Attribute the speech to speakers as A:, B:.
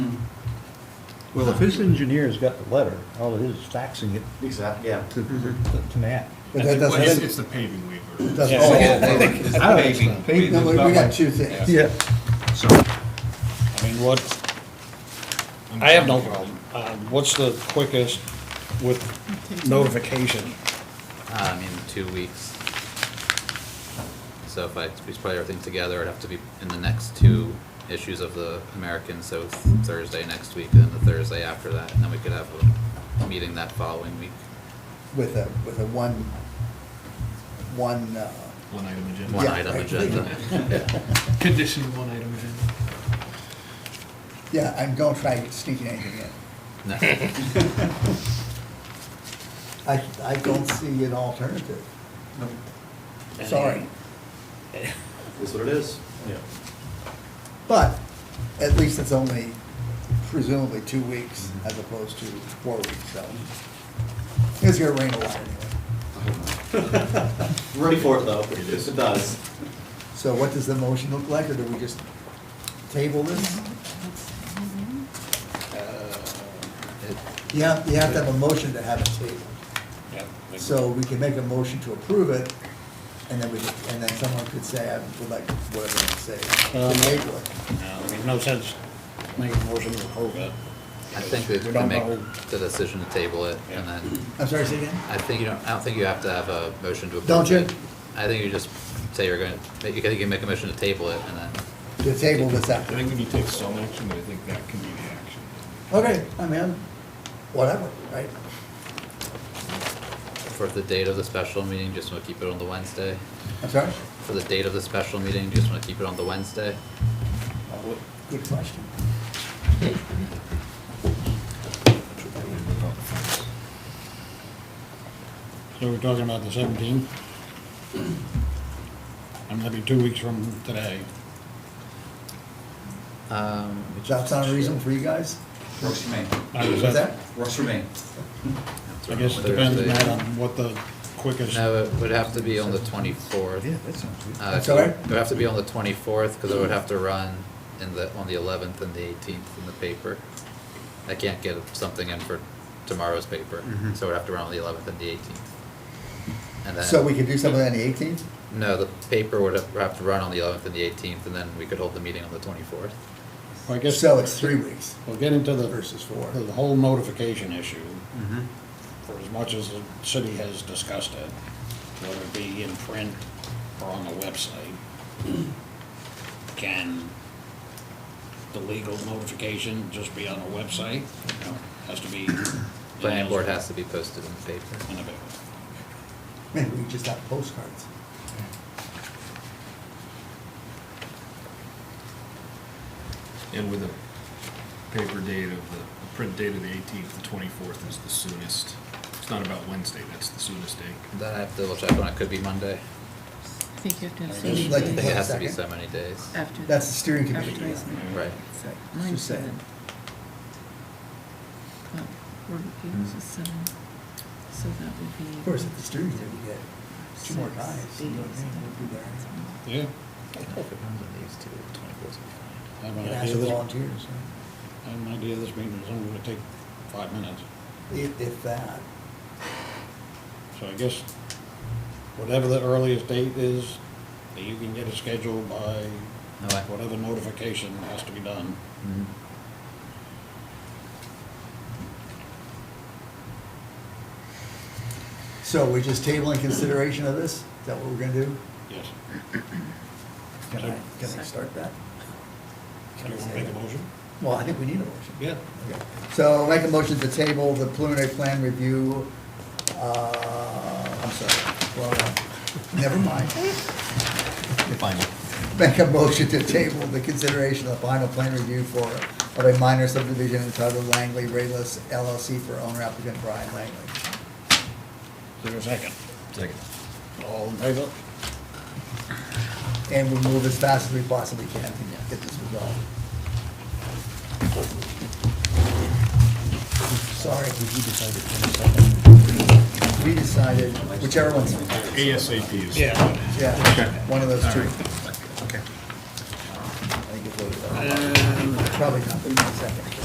A: Well, if his engineer's got the letter, all it is is faxing it
B: Exactly, yeah.
A: to, to Nat.
C: But that doesn't-
D: It's, it's the paving waiver.
C: doesn't-
E: Yeah,
C: oh,
E: I think
C: oh,
E: it's
C: oh.
E: paving.
C: No, we we got two things.
A: Yeah.
D: So,
E: I mean, what, I have no problem. Uh, What's the quickest with notification?
F: Um, in two weeks. So if I, we put everything together, it'd have to be in the next two issues of the American, so Thursday next week and then the Thursday after that, and then we could have a meeting that following week.
C: With a, with a one, one, uh,
D: One item agenda.
F: One
C: Yeah,
F: item
C: I-
F: agenda.
G: Condition one item agenda.
C: yeah, and don't try sneaking anything in.
F: No.
C: I, I don't see an alternative. Sorry.
B: Is what it is. Yeah.
C: But at least it's only presumably two weeks
F: Mm-hmm.
C: as opposed to four weeks, so. It's gonna rain a lot anyway.
B: I'm ready for it though, if it does.
C: So what does the motion look like, or do we just table this? You have, you have to have a motion to have it tabled.
E: Yeah, we-
C: So we can make a motion to approve it, and then we, could- and then someone could say, I would like, whatever they say,
E: Um,
C: to table it.
E: no, There's no sense making a motion to approve it.
F: I think we
E: We
F: could
E: don't
F: make
E: know.
F: the decision to table it and then,
C: I'm sorry, say again?
F: I think you don't, I don't think you have to have a motion to approve
C: Don't you?
F: it. I think you just say you're gonna, you can you can make a motion to table it and then
C: To table this
D: I
C: after.
D: think we need to take some action, but I think that can be the action.
C: Okay, I mean, whatever, right?
F: for the date of the special meeting, just wanna keep it on the Wednesday.
C: I'm sorry?
F: For the date of the special meeting, do you just want to keep it on the Wednesday?
C: Good question.
E: So we're talking about the seventeenth? I'm gonna be two weeks from today.
F: Um,
C: Does that sound reasonable for you guys?
B: Works for me.
E: I was
C: What's
E: at-
C: that?
B: Works for me.
E: Uh, I guess it depends, Matt, on what the quickest,
F: No, it would have to be on the twenty-fourth.
A: Yeah, that sounds good.
F: Uh,
C: That's all right.
F: It would have to be on the twenty-fourth, because it would have to run in the, on the eleventh and the eighteenth in the paper. I can't get something in for tomorrow's paper,
E: Mm-hmm.
A: Mhm.
F: so it would have to run on the eleventh and the eighteenth. And then.
C: So we could do something on the eighteenth?
F: No, the paper would have- have to run on the eleventh and the eighteenth, and then we could hold the meeting on the twenty-fourth.
E: I guess.
C: So it's three weeks.
E: We'll get into the.
C: Versus four.
E: The whole notification issue,
A: Mhm.
E: for as much as the city has discussed it, whether it be in print or on the website, can the legal notification just be on the website? No, Has to be.
F: Planning board has to be posted in the paper.
E: In the paper.
C: Maybe we just have postcards.
D: And with a paper date of the, the print date of the eighteenth, the twenty-fourth is the soonest. It's not about Wednesday, that's the soonest day.
F: Then I have to double check when it could be Monday.
H: I think you have to have
E: I
F: I
H: so
E: just
H: many
C: like
F: think
C: to
H: days
F: it has to be
C: Second.
F: so many days.
H: after.
C: That's the steering committee.
H: After it's not.
F: Right.
C: She
H: So Mine's
C: said.
H: seven. Well, we're yours is seven, so that would be.
C: Of course, at the steering committee, we get two more
H: six
C: guys. you know what I
H: days.
C: mean? We'll be there.
E: Yeah. I have an
C: And
E: idea
C: ask the
E: this-
C: volunteers,
E: I have an idea this meeting is only gonna take five minutes.
C: yeah. if, if that.
E: So I guess whatever the earliest date is, that you can get it scheduled by
F: Okay.
E: whatever notification has to be done.
H: Mm-hmm.
C: So we're just tabling consideration of this? Is that what we're gonna do?
E: Yes.
C: Can I, can I start that?
E: Do you want to make a motion?
C: Well, I think we need a motion.
E: Yeah.
C: Okay. So I'll make a motion to table the preliminary plan review, uh, I'm sorry, well, never mind.
A: Final.
C: Make a motion to table the consideration of the final plan review for, of a minor subdivision entitled Langley Rayless LLC for owner applicant Brian Langley.
E: Is there a second?
A: Second.
E: All in favor?
C: And we'll move as fast as we possibly can to get this resolved. Sorry. We decided, whichever one's,
D: ASAP is.
E: Yeah.
C: yeah, one of those two.
A: Okay.
C: I think it's what it was. Probably not, but second.